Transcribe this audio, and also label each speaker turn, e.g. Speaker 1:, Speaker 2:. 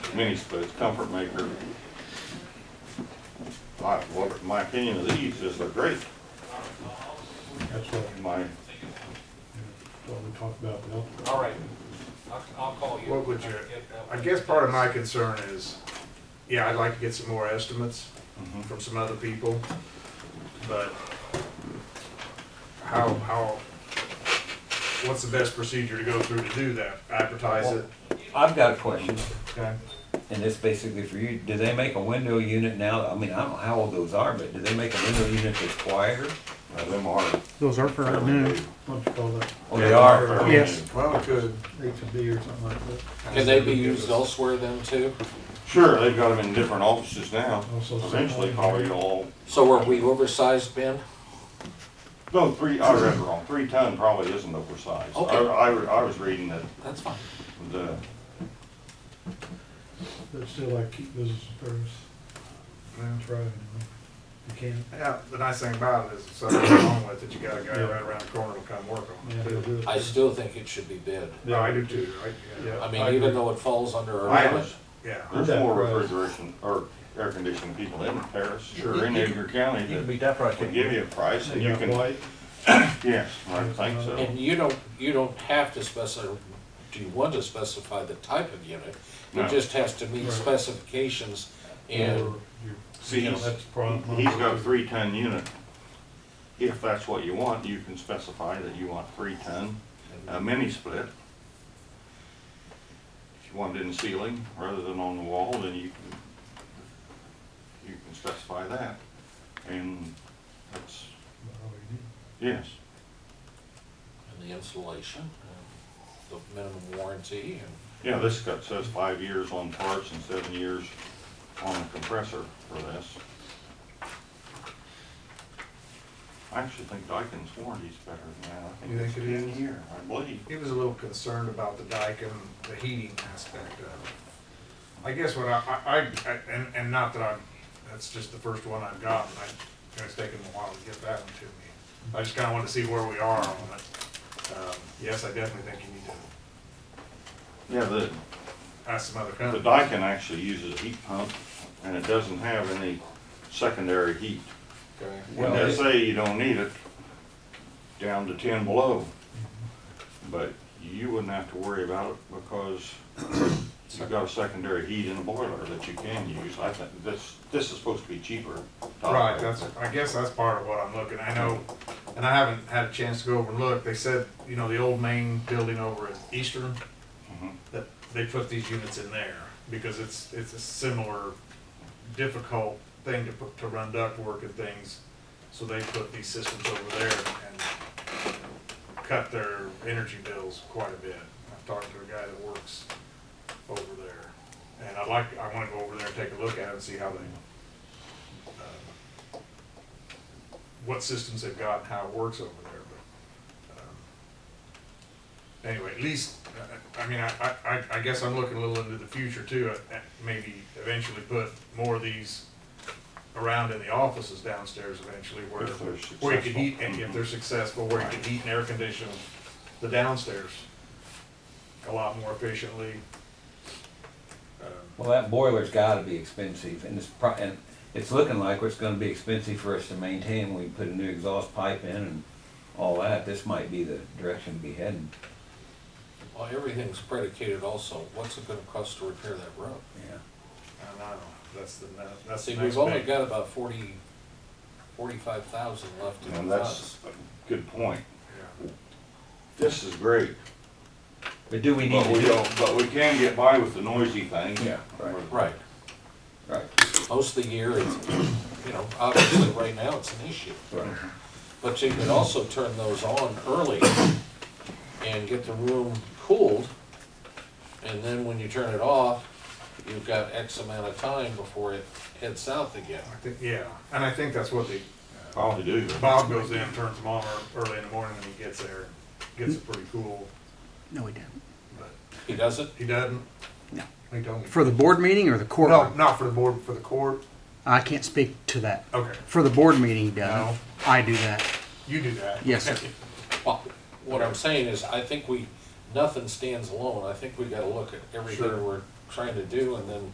Speaker 1: mini splits, comfort maker. My, what, my opinion of these is they're great,
Speaker 2: That's what,
Speaker 1: my,
Speaker 2: what we talked about, the health-
Speaker 3: All right, I'll, I'll call you.
Speaker 4: What would you-
Speaker 3: Get that
Speaker 4: I
Speaker 3: one.
Speaker 4: guess part of my concern is, yeah, I'd like to get some more estimates
Speaker 2: Mm-hmm.
Speaker 4: from some other people, but how, how, what's the best procedure to go through to do that? Advertise it?
Speaker 5: I've got a question,
Speaker 4: Okay.
Speaker 5: and it's basically for you. Do they make a window unit now? I mean, I don't know how old those are, but do they make a window unit that's quieter?
Speaker 1: now uh, them are
Speaker 6: Those are for right
Speaker 1: fairly
Speaker 6: now.
Speaker 1: new.
Speaker 2: what you call that,
Speaker 5: Oh, they are.
Speaker 1: Fairly
Speaker 6: Yes.
Speaker 1: new.
Speaker 4: Well, we could.
Speaker 2: H and B or something like that.
Speaker 7: Can they be used elsewhere then too?
Speaker 1: Sure, they've got them in different offices now,
Speaker 2: Also, some-
Speaker 1: eventually probably all,
Speaker 7: So were we oversized, Ben?
Speaker 1: no, three, I read wrong, three ton probably isn't oversized. I,
Speaker 7: Okay.
Speaker 1: I, I was reading that
Speaker 7: That's fine.
Speaker 1: the,
Speaker 2: But still, I keep business in Paris,
Speaker 4: Yeah.
Speaker 2: try it anyway. You can't,
Speaker 4: Yeah, the nice thing about it is if something's wrong with it, you got a guy right around the corner to come work on
Speaker 2: yeah,
Speaker 4: it.
Speaker 2: they'll
Speaker 4: too.
Speaker 2: do it.
Speaker 7: I still think it should be bid.
Speaker 4: No, I do too, right?
Speaker 2: Yeah.
Speaker 7: I
Speaker 2: I
Speaker 7: mean, even
Speaker 2: agree.
Speaker 7: though it falls under
Speaker 1: I
Speaker 7: our limit,
Speaker 1: was-
Speaker 4: Yeah.
Speaker 1: there's
Speaker 2: Okay.
Speaker 1: more refrigeration or air conditioning people in Paris, sure, in Edgar County
Speaker 5: You can
Speaker 1: that
Speaker 5: beat that price.
Speaker 1: would give you a price and you
Speaker 2: got
Speaker 1: can,
Speaker 2: white,
Speaker 1: yes, I think so.
Speaker 7: and you don't, you don't have to specify, do you want to specify the type of unit?
Speaker 1: No.
Speaker 7: It just has to meet
Speaker 2: Right.
Speaker 7: specifications and,
Speaker 2: or your-
Speaker 1: See,
Speaker 2: you know,
Speaker 1: he's-
Speaker 2: that's problem.
Speaker 1: He's got a three ton unit. If that's what you want, you can specify that you want three ton, a
Speaker 3: uh,
Speaker 1: mini split. If you want it in ceiling rather than on the wall, then you can, you can specify that. And that's, yes,
Speaker 7: and the installation, and the minimum warranty and
Speaker 1: yeah, this got, says five years on parts and seven years on a compressor for this. I actually think Dykens warranty's better than that. I
Speaker 4: You
Speaker 1: think it's
Speaker 4: think it
Speaker 1: ten
Speaker 4: is?
Speaker 1: year, I believe.
Speaker 4: He was a little concerned about the dike and the heating aspect of it. I guess what I, I, I- and, and not that I'm, that's just the first one I've gotten, I, it's taken a while to get that one to me. I just kinda wanted to see where we are on it. Um, Yes, I definitely think you need to
Speaker 1: Yeah, the,
Speaker 4: ask some other
Speaker 1: the
Speaker 4: companies.
Speaker 1: Daikin actually uses a heat pump, and it doesn't have any secondary heat.
Speaker 4: Okay.
Speaker 1: When
Speaker 5: Well,
Speaker 1: they
Speaker 5: it-
Speaker 1: say you don't need it, down to ten below. But you wouldn't have to worry about it because you've got a secondary heat in the boiler that you can use. I think this, this is supposed to be cheaper.
Speaker 4: Right, that's, I guess that's part of what I'm looking, I know, and I haven't had a chance to go over and look, they said, you know, the old main building over at Eastern,
Speaker 1: Mhm.
Speaker 4: that they put these units in there, because it's, it's a similar difficult thing to put, to run ductwork and things, so they put these systems over there and cut their energy bills quite a bit. I've talked to a guy that works over there, and I'd like, I wanna go over there and take a look at it and see how they, uh, what systems they've got and how it works over there, but, um, anyway, at least, uh, I- I, I mean, I, I, I- I guess I'm looking a little into the future too, uh, uh, maybe eventually put more of these around in the offices downstairs eventually where,
Speaker 1: If they're
Speaker 4: where you can heat, and
Speaker 1: successful.
Speaker 4: if they're successful, where you can heat and air condition the downstairs a lot more efficiently. Um,
Speaker 5: Well, that boiler's gotta be expensive, and it's pro, and it's looking like it's gonna be expensive for us to maintain when we put a new exhaust pipe in and all that. This might be the direction to be heading.
Speaker 7: well, everything's predicated also, what's it gonna cost to repair that road?
Speaker 5: Yeah.
Speaker 4: I know, that's the, ne- that's the
Speaker 7: See,
Speaker 4: next
Speaker 7: we've only
Speaker 4: big.
Speaker 7: got about forty, forty-five thousand left in
Speaker 1: And
Speaker 7: the
Speaker 1: that's
Speaker 7: funds.
Speaker 1: a good point.
Speaker 4: Yeah.
Speaker 1: This is great,
Speaker 5: But do we need
Speaker 1: but
Speaker 5: to
Speaker 1: we
Speaker 5: do?
Speaker 1: don't, but we can get by with the noisy thing.
Speaker 5: Yeah, right.
Speaker 7: Right.
Speaker 5: Right,
Speaker 7: most of the year, it's, you know, obviously right now it's an issue.
Speaker 5: right.
Speaker 7: But you can also turn those on early and get the room cooled. And then when you turn it off, you've got X amount of time before it heads south again.
Speaker 4: I think, yeah, and I think that's what the,
Speaker 1: Probably do.
Speaker 4: Bob goes in, turns them on ear- early in the morning when he gets there, gets it pretty cool,
Speaker 6: No, we didn't.
Speaker 4: but
Speaker 7: He does it,
Speaker 4: he doesn't.
Speaker 6: No.
Speaker 4: He told me.
Speaker 6: For the board meeting or the
Speaker 4: No,
Speaker 6: courtroom?
Speaker 4: not for the board, for the court,
Speaker 6: I can't speak to that.
Speaker 4: okay,
Speaker 6: For the board meeting, he does.
Speaker 4: No.
Speaker 6: I do that.
Speaker 4: you do that.
Speaker 6: Yes, sir.
Speaker 7: Well, what I'm saying is, I think we, nothing stands alone. I think we gotta look at everything
Speaker 4: Sure.
Speaker 7: we're trying to do, and then